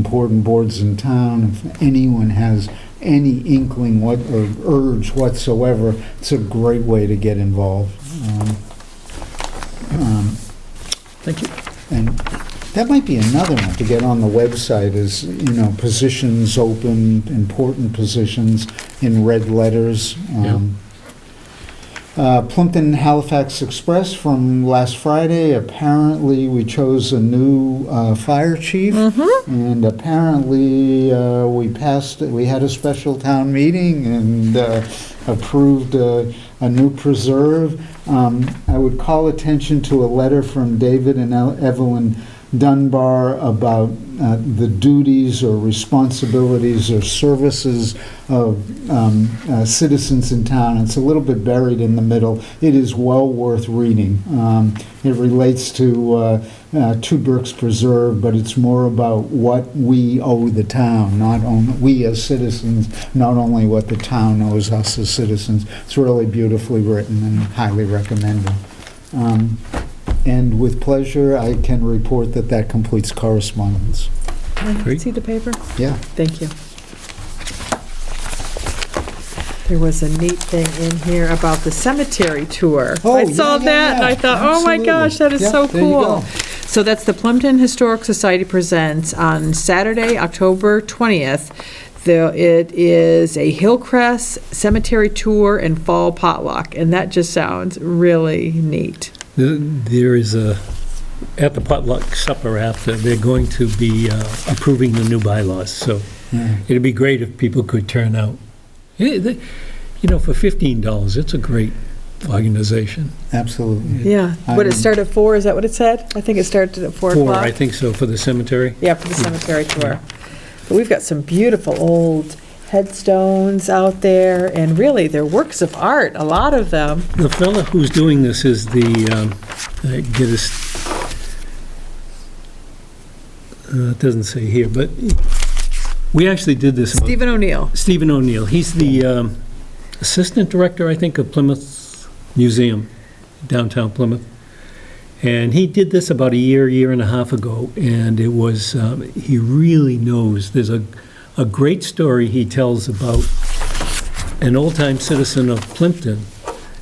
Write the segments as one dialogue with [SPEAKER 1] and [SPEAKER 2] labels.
[SPEAKER 1] important boards in town, if anyone has any inkling what, or urge whatsoever, it's a great way to get involved. Um, um,
[SPEAKER 2] Thank you.
[SPEAKER 1] And that might be another one to get on the website is, you know, positions open, important positions in red letters. Um, uh, Plimpton Halifax Express from last Friday, apparently we chose a new uh, fire chief. And apparently, uh, we passed, we had a special town meeting and uh, approved uh, a new preserve. Um, I would call attention to a letter from David and Evelyn Dunbar about uh, the duties or responsibilities or services of um, uh, citizens in town. It's a little bit buried in the middle. It is well worth reading. Um, It relates to uh, uh, Two Brooks Preserve, but it's more about what we owe the town, not only, we as citizens, not only what the town owes us as citizens. It's really beautifully written and highly recommended. Um, And with pleasure, I can report that that completes correspondence.
[SPEAKER 2] Great.
[SPEAKER 3] See the paper?
[SPEAKER 1] Yeah.
[SPEAKER 3] Thank you. There was a neat thing in here about the cemetery tour.
[SPEAKER 1] Oh,
[SPEAKER 3] I saw
[SPEAKER 1] yeah, yeah,
[SPEAKER 3] that and I
[SPEAKER 1] yeah.
[SPEAKER 3] thought, oh my
[SPEAKER 1] Absolutely.
[SPEAKER 3] gosh, that is
[SPEAKER 1] Yeah,
[SPEAKER 3] so
[SPEAKER 1] there you go.
[SPEAKER 3] cool. So that's the Plimpton Historic Society presents on Saturday, October 20th. There- It is a Hillcrest Cemetery Tour and Fall Potluck, and that just sounds really neat.
[SPEAKER 2] There- There is a, at the potluck supper after, they're going to be uh, approving the new bylaws, so
[SPEAKER 1] Yeah.
[SPEAKER 2] it'd be great if people could turn out. Eh, they- You know, for $15, it's a great organization.
[SPEAKER 1] Absolutely.
[SPEAKER 3] Yeah. Would it
[SPEAKER 1] I'm-
[SPEAKER 3] start at four? Is that what it said? I think it started at 4 o'clock.
[SPEAKER 2] Four, I think so, for the cemetery.
[SPEAKER 3] Yeah, for the cemetery tour. But we've got some beautiful old headstones out there, and really, they're works of art, a lot of them.
[SPEAKER 2] The fella who's doing this is the, um, uh, get his, uh, it doesn't say here, but we actually did this. about-
[SPEAKER 3] Stephen O'Neill.
[SPEAKER 2] Stephen O'Neill, he's the um, Assistant Director, I think, of Plymouth Museum, downtown Plymouth. And he did this about a year, year and a half ago, and it was, um, he really knows, there's a, a great story he tells about an old-time citizen of Plimpton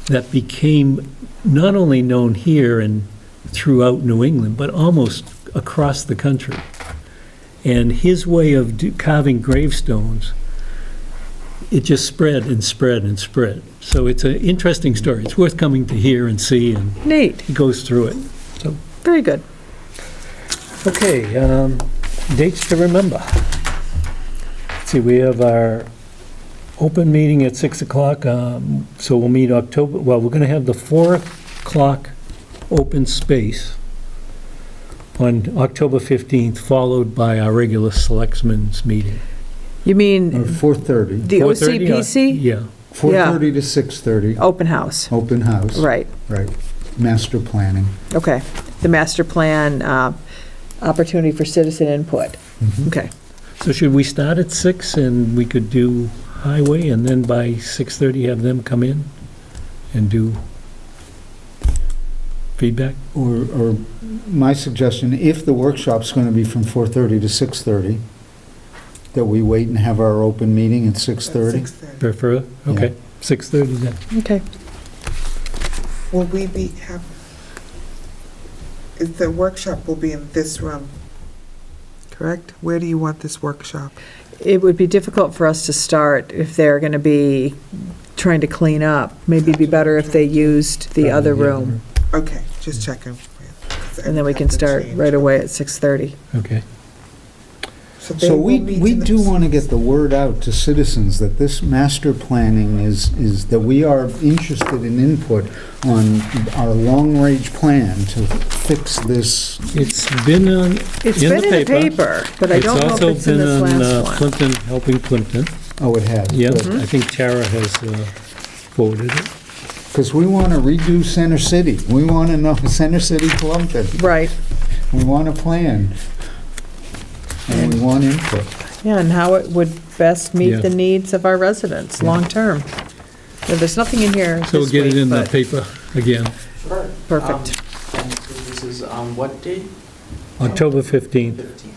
[SPEAKER 2] that became not only known here and throughout New England, but almost across the country. And his way of do- carving gravestones it just spread and spread and spread. So it's an interesting story. It's worth coming to hear and see, and
[SPEAKER 3] Neat,
[SPEAKER 2] he goes through it.
[SPEAKER 3] very good.
[SPEAKER 2] Okay, um, dates to remember. Let's See, we have our open meeting at 6 o'clock, um, so we'll meet October, well, we're going to have the 4 o'clock open space on October 15th, followed by our regular selectmen's meeting.
[SPEAKER 3] You
[SPEAKER 1] Or
[SPEAKER 3] mean
[SPEAKER 1] 4:30.
[SPEAKER 3] the
[SPEAKER 2] 4:30, uh,
[SPEAKER 3] OCPC?
[SPEAKER 2] Yeah.
[SPEAKER 1] 4:30 to 6:30,
[SPEAKER 3] Open house,
[SPEAKER 1] open house.
[SPEAKER 3] Oh. right,
[SPEAKER 1] Right. Master planning.
[SPEAKER 3] okay. The master plan, uh, opportunity for citizen input, okay.
[SPEAKER 2] So should we start at six and we could do highway and then by 6:30 have them come in and do feedback?
[SPEAKER 1] Or, or my suggestion, if the workshop's going to be from 4:30 to 6:30, that we wait and have our open meeting at 6:30?
[SPEAKER 2] Prefer, okay, 6:30 then.
[SPEAKER 3] Okay.
[SPEAKER 4] Will we be, have, is the workshop will be in this room, correct? Where do you want this workshop?
[SPEAKER 3] It would be difficult for us to start if they're going to be trying to clean up. Maybe it'd be better if they used the other room.
[SPEAKER 4] Okay, just checking. 'Cause
[SPEAKER 3] And then we
[SPEAKER 4] everything
[SPEAKER 3] can
[SPEAKER 4] has
[SPEAKER 3] start
[SPEAKER 4] changed.
[SPEAKER 3] right away at 6:30.
[SPEAKER 2] Okay,
[SPEAKER 4] they
[SPEAKER 1] So
[SPEAKER 4] will
[SPEAKER 1] we,
[SPEAKER 4] meet
[SPEAKER 1] we
[SPEAKER 4] in the-
[SPEAKER 1] do want to get the word out to citizens that this master planning is, is that we are interested in input on our long-range plan to fix this.
[SPEAKER 2] it's been on,
[SPEAKER 3] It's
[SPEAKER 2] In
[SPEAKER 3] been
[SPEAKER 2] the
[SPEAKER 3] in the
[SPEAKER 2] paper.
[SPEAKER 3] paper, but I
[SPEAKER 2] it's
[SPEAKER 3] don't know if
[SPEAKER 2] also
[SPEAKER 3] it's in
[SPEAKER 2] been
[SPEAKER 3] this
[SPEAKER 2] on uh,
[SPEAKER 3] last one.
[SPEAKER 2] Plimpton, Helping Plimpton.
[SPEAKER 1] Oh, it has.
[SPEAKER 2] Yeah, I think Tara has uh, forwarded it.
[SPEAKER 1] Because we want to redo Center City. We want to know Center City, Plumpton.
[SPEAKER 3] Right,
[SPEAKER 1] We want a plan. And we want input.
[SPEAKER 3] yeah, and how it would best
[SPEAKER 2] Yeah.
[SPEAKER 3] meet the needs of our residents, long-term. Now, There's nothing in here
[SPEAKER 2] So we'll
[SPEAKER 3] this
[SPEAKER 2] get it
[SPEAKER 3] week,
[SPEAKER 2] in the
[SPEAKER 3] but
[SPEAKER 2] paper again,
[SPEAKER 5] Sure.
[SPEAKER 3] perfect.
[SPEAKER 5] Um, and This is on what date?
[SPEAKER 2] October 15th.
[SPEAKER 5] 15th.